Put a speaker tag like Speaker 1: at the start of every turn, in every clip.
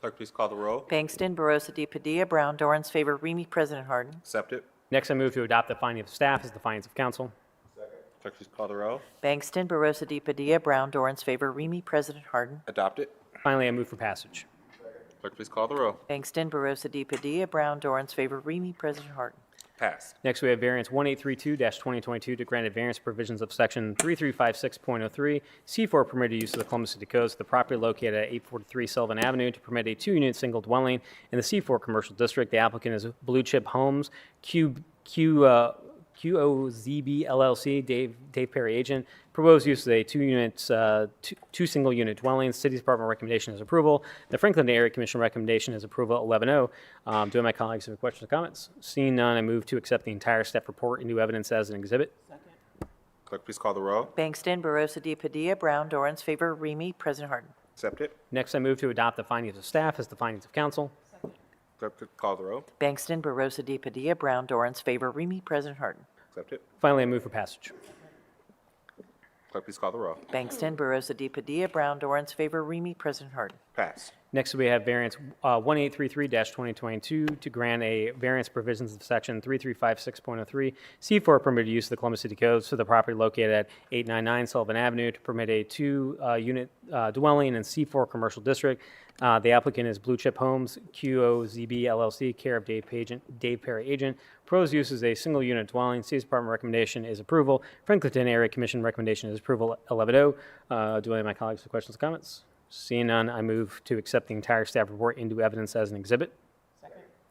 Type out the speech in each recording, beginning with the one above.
Speaker 1: Clerk, please call the roll.
Speaker 2: Bangston, Barosa de Padilla, Brown, Dorans, favor, Remy, President Harden.
Speaker 1: Accept it.
Speaker 3: Next, I move to adopt the finding of staff as the findings of council.
Speaker 1: Clerk, please call the roll.
Speaker 2: Bangston, Barosa de Padilla, Brown, Dorans, favor, Remy, President Harden.
Speaker 1: Adopt it.
Speaker 3: Finally, I move for passage.
Speaker 1: Clerk, please call the roll.
Speaker 2: Bangston, Barosa de Padilla, Brown, Dorans, favor, Remy, President Harden.
Speaker 1: Passed.
Speaker 3: Next, we have variance 1832-2022 to grant a variance provisions of section 3356.03, C4 permitted use of the Columbus City Codes, the property located at 843 Sylvan Avenue to permit a two-unit single dwelling in the C4 commercial district. The applicant is Blue Chip Homes, Q, Q, uh, QOZB LLC, Dave, Dave Perry agent. Proposed use of a two-unit, uh, two, two single-unit dwellings. City Department recommendation is approval. The Franklin Area Commission recommendation is approval 11-0. Um, do my colleagues have any questions or comments? Seeing none, I move to accept the entire staff report into evidence as an exhibit.
Speaker 1: Clerk, please call the roll.
Speaker 2: Bangston, Barosa de Padilla, Brown, Dorans, favor, Remy, President Harden.
Speaker 1: Accept it.
Speaker 3: Next, I move to adopt the findings of staff as the findings of council.
Speaker 1: Clerk, please call the roll.
Speaker 2: Bangston, Barosa de Padilla, Brown, Dorans, favor, Remy, President Harden.
Speaker 1: Accept it.
Speaker 3: Finally, I move for passage.
Speaker 1: Clerk, please call the roll.
Speaker 2: Bangston, Barosa de Padilla, Brown, Dorans, favor, Remy, President Harden.
Speaker 1: Passed.
Speaker 3: Next, we have variance uh, 1833-2022 to grant a variance provisions of section 3356.03, C4 permitted use of the Columbus City Codes for the property located at 899 Sullivan Avenue to permit a two-unit uh, dwelling in C4 Commercial District. Uh, The applicant is Blue Chip Homes, QOZB LLC, care of Dave Pagent, Dave Perry Agent. Proposed use is a single-unit dwelling. City's Department recommendation is approval. Franklinton Area Commission recommendation is approval 11-0. Uh, Do any of my colleagues have questions or comments? Seeing none, I move to accept the entire staff report into evidence as an exhibit.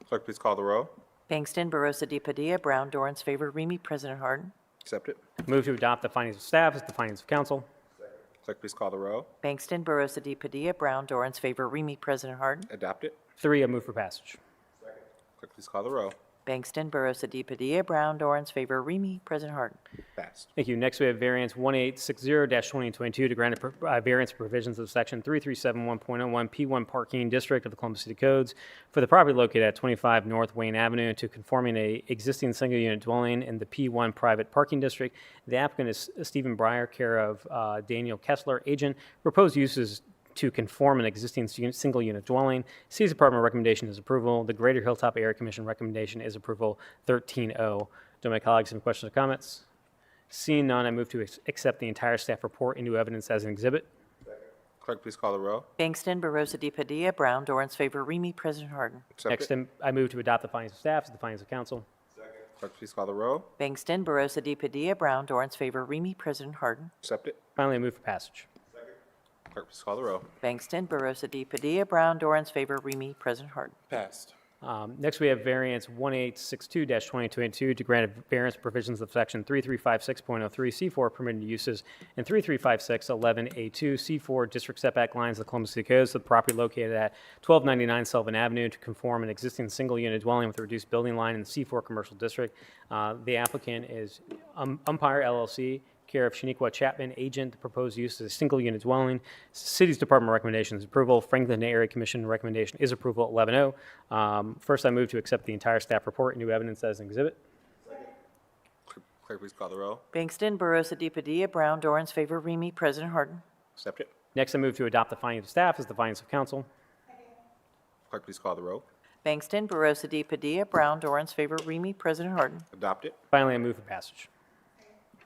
Speaker 1: Clerk, please call the roll.
Speaker 2: Bangston, Barosa de Padilla, Brown, Dorans, favor, Remy, President Harden.
Speaker 1: Accept it.
Speaker 3: Move to adopt the findings of staff as the findings of council.
Speaker 1: Clerk, please call the roll.
Speaker 2: Bangston, Barosa de Padilla, Brown, Dorans, favor, Remy, President Harden.
Speaker 1: Adopt it.
Speaker 3: Three, I move for passage.
Speaker 1: Clerk, please call the roll.
Speaker 2: Bangston, Barosa de Padilla, Brown, Dorans, favor, Remy, President Harden.
Speaker 1: Passed.
Speaker 3: Thank you. Next, we have variance 1860-2022 to grant a pro- uh, variance provisions of section 3371.01 P1 Parking District of the Columbus City Codes for the property located at 25 North Wayne Avenue to conforming a existing single-unit dwelling in the P1 Private Parking District. The applicant is Stephen Breyer, care of uh, Daniel Kessler, agent. Proposed uses to conform an existing su- single-unit dwelling. City's Department recommendation is approval. The Greater Hilltop Area Commission recommendation is approval 13-0. Do my colleagues have any questions or comments? Seeing none, I move to ex- accept the entire staff report into evidence as an exhibit.
Speaker 1: Clerk, please call the roll.
Speaker 2: Bangston, Barosa de Padilla, Brown, Dorans, favor, Remy, President Harden.
Speaker 3: Next,
Speaker 1: Accept it.
Speaker 3: I'm- I move to adopt the findings of staff as the findings of council.
Speaker 1: Clerk, please call the roll.
Speaker 2: Bangston, Barosa de Padilla, Brown, Dorans, favor, Remy, President Harden.
Speaker 1: Accept it.
Speaker 3: Finally, I move for passage.
Speaker 1: Clerk, please call the roll.
Speaker 2: Bangston, Barosa de Padilla, Brown, Dorans, favor, Remy, President Harden.
Speaker 1: Passed.
Speaker 3: Um, Next, we have variance 1862-2022 to grant variance provisions of section 3356.03C4 permitted uses and 3356.11A2 C4 district setback lines of the Columbus City Codes to the property located at 1299 Sullivan Avenue to conform an existing single-unit dwelling with a reduced building line in the C4 commercial district. Uh, The applicant is Um- Umpire LLC, care of Shaniqua Chapman, agent. The proposed use is a single-unit dwelling. City's Department recommendations approval. Franklin Area Commission recommendation is approval 11-0. Um, First, I move to accept the entire staff report and new evidence as an exhibit.
Speaker 1: Clerk- Clerk, please call the roll.
Speaker 2: Bangston, Barosa de Padilla, Brown, Dorans, favor, Remy, President Harden.
Speaker 1: Accept it.
Speaker 3: Next, I move to adopt the findings of staff as the findings of council.
Speaker 1: Clerk, please call the roll.
Speaker 2: Bangston, Barosa de Padilla, Brown, Dorans, favor, Remy, President Harden.
Speaker 1: Adopt it.
Speaker 3: Finally, I move for passage.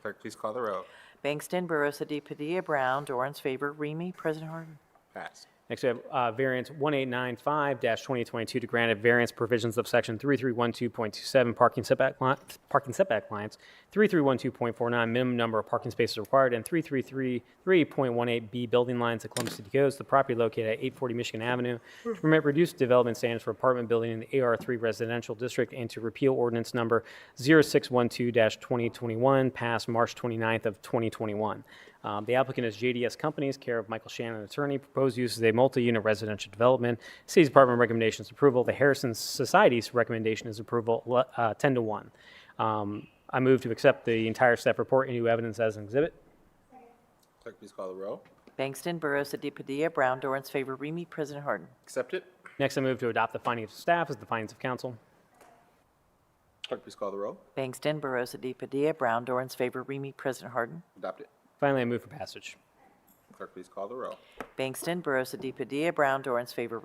Speaker 1: Clerk, please call the roll.
Speaker 2: Bangston, Barosa de Padilla, Brown, Dorans, favor, Remy, President Harden.
Speaker 1: Passed.
Speaker 3: Next, we have uh, variance 1895-2022 to grant a variance provisions of section 3312.27 parking setback li- parking setback lines, 3312.49 minimum number of parking spaces required, and 3333.18B building lines at Columbus City Codes, the property located at 840 Michigan Avenue, to permit reduced development standards for apartment building in the AR3 residential district and to repeal ordinance number 0612-2021 passed March 29th of 2021. Um, The applicant is JDS Companies, care of Michael Shannon, attorney. Proposed use is a multi-unit residential development. City's Department recommendations approval. The Harrison Society's recommendation is approval le- uh, 10 to 1. Um, I move to accept the entire staff report and new evidence as an exhibit.
Speaker 1: Clerk, please call the roll.
Speaker 2: Bangston, Barosa de Padilla, Brown, Dorans, favor, Remy, President Harden.
Speaker 1: Accept it.
Speaker 3: Next, I move to adopt the findings of staff as the findings of council.
Speaker 1: Clerk, please call the roll.
Speaker 2: Bangston, Barosa de Padilla, Brown, Dorans, favor, Remy, President Harden.
Speaker 1: Adopt it.
Speaker 3: Finally, I move for passage.
Speaker 1: Clerk, please call the roll.
Speaker 2: Bangston, Barosa de Padilla, Brown, Dorans, favor,